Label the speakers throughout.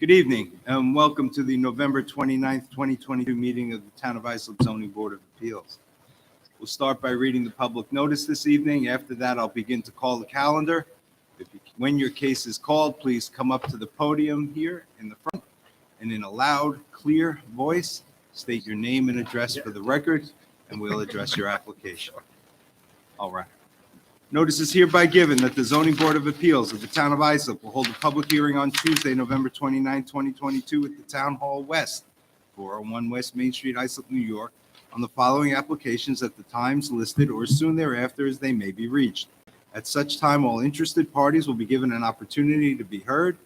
Speaker 1: Good evening and welcome to the November 29th, 2022 meeting of the Town of Islip Zoning Board of Appeals. We'll start by reading the public notice this evening. After that, I'll begin to call the calendar. If you- When your case is called, please come up to the podium here in the front and in a loud, clear voice, state your name and address for the record, and we'll address your application. All right. Notice is hereby given that the zoning board of appeals of the town of Islip will hold a public hearing on Tuesday, November 29, 2022, at the Town Hall West, 401 West Main Street, Islip, New York, on the following applications at the times listed or soon thereafter as they may be reached. At such time, all interested parties will be given an opportunity to be heard.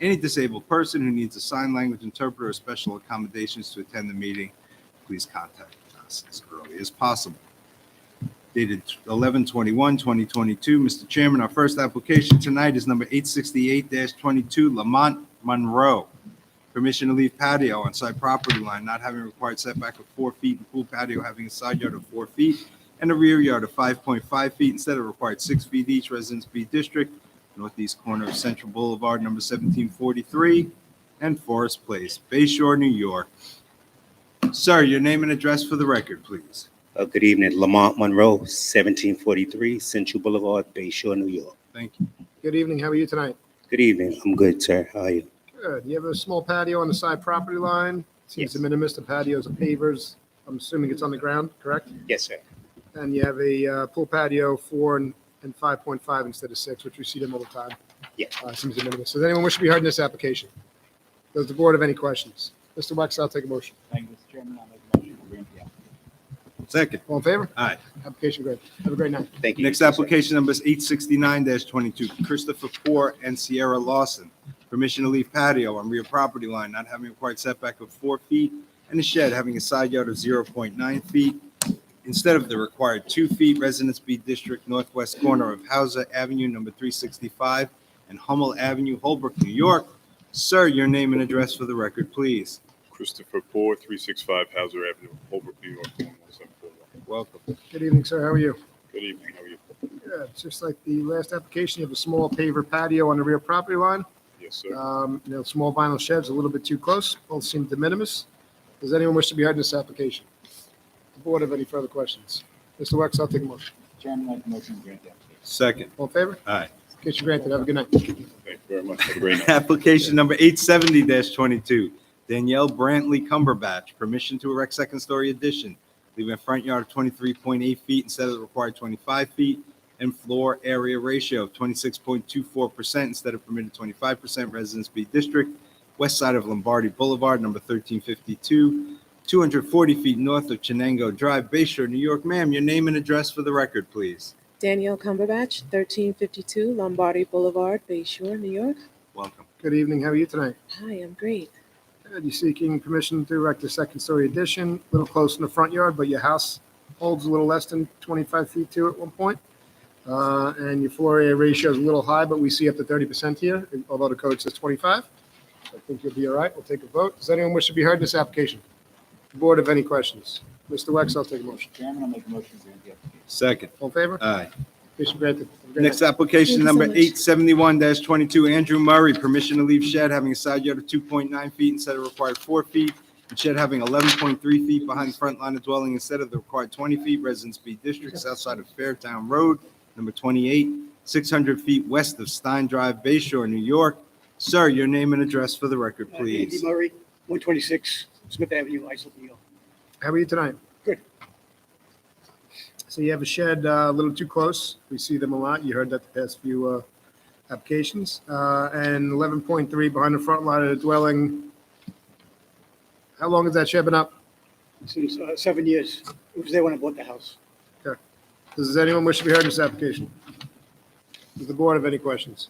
Speaker 1: Any disabled person who needs a sign language interpreter or special accommodations to attend the meeting, please contact us as early as possible dated 11/21/2022. Mr. Chairman, our first application tonight is number 868-22 Lamont Monroe. Permission to leave patio on side property line, not having required setback of four feet, and pool patio having a side yard of four feet and a rear yard of 5.5 feet instead of required six feet each, Residence B District, northeast corner of Central Boulevard, number 1743, and Forest Place, Bay Shore, New York. Sir, your name and address for the record, please.
Speaker 2: Uh, Good evening, Lamont Monroe, 1743 Central Boulevard, Bay Shore, New York.
Speaker 1: Thank you.
Speaker 3: Good evening, how are you tonight?
Speaker 2: Good evening, I'm good, sir. How are you?
Speaker 3: Good, you have a small patio on the side property line? Seems to
Speaker 2: Yes.
Speaker 3: minimus, the patios are pavers, I'm assuming it's on the ground, correct?
Speaker 2: Yes, sir.
Speaker 3: And you have a uh, pool patio, four and and 5.5 instead of six, which we see them all the time.
Speaker 2: Yeah.
Speaker 3: Uh, Seems de minimis. Does anyone wish to be heard in this application? Does the board have any questions? Mr. Wexler, I'll take a motion.
Speaker 4: Thank you, Mr. Chairman. I'll make a motion to grant the application.
Speaker 1: Second.
Speaker 3: All in favor?
Speaker 1: Aye.
Speaker 3: Application great. Have a great night.
Speaker 2: Thank you.
Speaker 1: Next
Speaker 2: sir.
Speaker 1: application number is eight sixty-nine twenty-two, Christopher Poor and Sierra Lawson. Permission to leave patio on rear property line, not having required setback of four feet, and a shed having a side yard of zero point nine feet instead of the required two feet, Residence B District, northwest corner of Hauser Avenue, number three sixty-five, and Hummel Avenue, Holbrook, New York. Sir, your name and address for the record, please.
Speaker 5: Christopher Poor, 365 Hauser Avenue, Holbrook, New York, 11741.
Speaker 1: Welcome.
Speaker 3: Good evening, sir, how are you?
Speaker 5: Good evening, how are you?
Speaker 3: Good, just like the last application, you have a small paver patio on the rear property line.
Speaker 5: Yes, sir.
Speaker 3: Um, you know, small vinyl sheds a little bit too close, both seem de minimis. Does anyone wish to be heard in this application? The board have any further questions? Mr. Wex, I'll take a motion.
Speaker 4: Chairman, I'll make a motion to grant the application.
Speaker 1: Second.
Speaker 3: All in favor?
Speaker 1: Aye.
Speaker 3: Case you're granted. Have a good night.
Speaker 5: Thank you very much. Have a great night.
Speaker 1: Application number eight seventy twenty-two, Danielle Brantley Cumberbatch, permission to erect second-story addition, leaving a front yard of twenty-three point eight feet instead of the required twenty-five feet, and floor area ratio of twenty-six point two four percent instead of permitted twenty-five percent, Residence B District, west side of Lombardi Boulevard, number thirteen fifty-two, two hundred forty feet north of Chenango Drive, Bay Shore, New York. Ma'am, your name and address for the record, please.
Speaker 6: Danielle Cumberbatch, 1352 Lombardi Boulevard, Bay Shore, New York.
Speaker 1: Welcome.
Speaker 3: Good evening. How are you tonight?
Speaker 6: Hi, I'm great.
Speaker 3: Good. You seeking permission to erect a second-story addition, a little close in the front yard, but your house holds a little less than 25 feet to at one point. Uh, and your floor area ratio is a little high, but we see up to 30% here, although the code says 25. So I think you'll be all right. We'll take a vote. Does anyone wish to be heard in this application? Board have any questions? Mr. Wex, I'll take a motion.
Speaker 4: Chairman, I'll make a motion to grant the application.
Speaker 1: Second.
Speaker 3: All in favor?
Speaker 1: Aye.
Speaker 3: Petition granted. Have a great
Speaker 1: Next
Speaker 3: night.
Speaker 6: Thank
Speaker 1: application,
Speaker 6: you so
Speaker 1: number
Speaker 6: much.
Speaker 1: eight seventy-one twenty-two, Andrew Murray, permission to leave shed having a side yard of two point nine feet instead of required four feet, and shed having eleven point three feet behind the front line of dwelling instead of the required twenty feet, Residence B District, south side of Fairtown Road, number twenty-eight, six hundred feet west of Stein Drive, Bay Shore, New York. Sir, your name and address for the record,
Speaker 7: Uh, Andy
Speaker 1: please.
Speaker 7: Murray, 126 Smith Avenue, Islip, New York.
Speaker 3: How are you tonight?
Speaker 7: Good.
Speaker 3: So you have a shed uh, a little too close. We see them a lot. You heard that the past few uh, applications. Uh, And 11.3 behind the front line of the dwelling. How long has that shed been up?
Speaker 7: Since uh, seven years. It was there when I bought the house.
Speaker 3: Does anyone wish to be heard in this application? Does the board have any questions?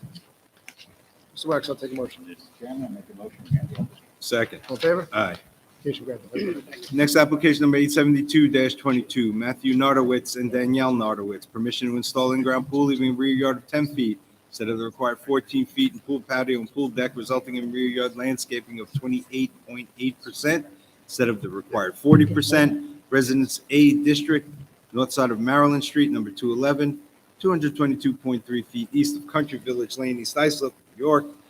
Speaker 3: Mr. Wax, I'll take a motion.
Speaker 4: Mr. Chairman, I'll make a motion to grant the application.
Speaker 1: Second.
Speaker 3: All in favor?
Speaker 1: Aye.
Speaker 3: Case granted.
Speaker 1: Next application number eight seventy-two twenty-two, Matthew Nardowitz and Danielle Nardowitz. Permission to install in-ground pool leaving a rear yard of ten feet instead of the required fourteen feet and pool patio and pool deck resulting in rear yard landscaping of twenty-eight point eight percent instead of the required forty percent. Residence A District, north side of Maryland Street, number 211, 222.3 feet east of Country Village Lane, East Islip, New York.